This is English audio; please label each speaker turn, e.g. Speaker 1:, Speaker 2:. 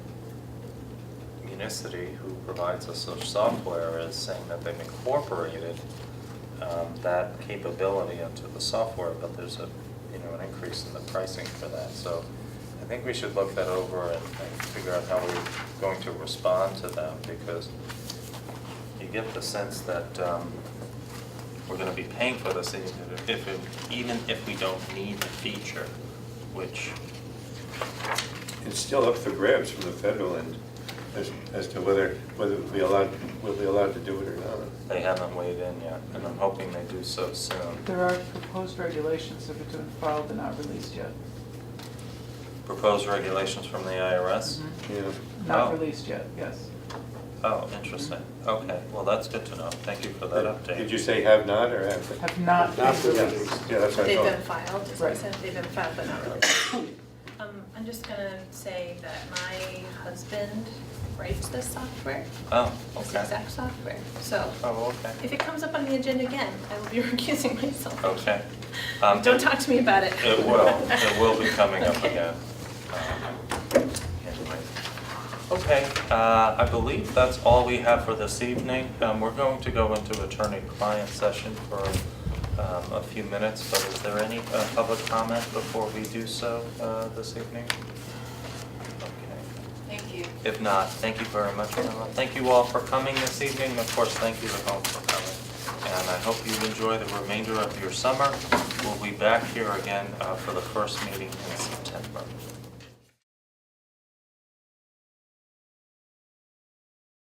Speaker 1: Unicity, who provides us such software, is saying that they've incorporated um, that capability into the software, but there's a, you know, an increase in the pricing for that. So I think we should look that over and and figure out how we're going to respond to them, because you get the sense that um, we're gonna be paying for this even if, it- even if we don't need the feature, which
Speaker 2: It's still up for grabs from the federal end as, as to whether, whether we'll be allowed, we'll be allowed to do it or not.
Speaker 1: they haven't weighed in yet, and I'm hoping they do so soon.
Speaker 3: There are proposed regulations that have been filed and not released yet.
Speaker 1: Proposed regulations from the IRS?
Speaker 2: Yeah.
Speaker 3: Not
Speaker 1: Oh.
Speaker 3: released yet, yes.
Speaker 4: Mm-hmm.
Speaker 1: Oh, interesting. Okay, well, that's good to know. Thank you for that update.
Speaker 2: Did you say have not or have?
Speaker 3: Have not been
Speaker 2: Yeah,
Speaker 3: released.
Speaker 2: Yeah, that's what I
Speaker 5: They've
Speaker 2: thought.
Speaker 5: been filed, is what I
Speaker 3: Right.
Speaker 5: said, they've been filed but not released.
Speaker 4: Um, I'm just gonna say that my husband writes this software,
Speaker 1: Oh,
Speaker 4: this
Speaker 1: okay.
Speaker 4: exact software. So
Speaker 1: Oh,
Speaker 4: if
Speaker 1: okay.
Speaker 4: it comes up on the agenda again, I will be recusing myself.
Speaker 1: Okay. Um,
Speaker 4: Don't talk to me about it.
Speaker 1: It will, it will be coming up
Speaker 4: Okay.
Speaker 1: again. Um, anyway. Okay, uh, I believe that's all we have for this evening. Um, We're going to go into attorney-client session for um, a few minutes, but is there any uh, public comment before we do so uh, this evening? Okay.
Speaker 4: Thank you.
Speaker 1: If not, thank you very much, Pamela. Thank you all for coming this evening, and of course, thank you at home for coming. And I hope you enjoy the remainder of your summer. We'll be back here again uh, for the first meeting in September.